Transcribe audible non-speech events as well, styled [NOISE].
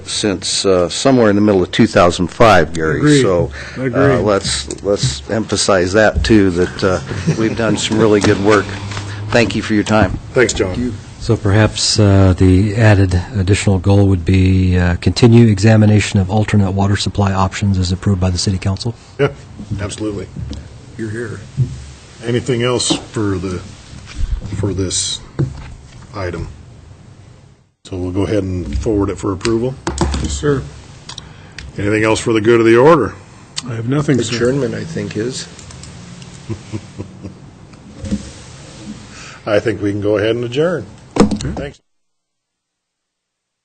since uh, somewhere in the middle of 2005, Gary. Agreed. So uh, Agreed. let's, let's emphasize that, too, that uh, we've done some really good work. Thank you for your time. Thanks, John. So perhaps uh, the added additional goal would be uh, continue examination of alternate water supply options as approved by the city council? Yeah, absolutely. You're here. Anything else for the, for this item? So we'll go ahead and forward it for approval. Yes, sir. Anything else for the good of the order? I have nothing, sir. I think, [LAUGHS] is. I think we can go ahead and adjourn. Thanks.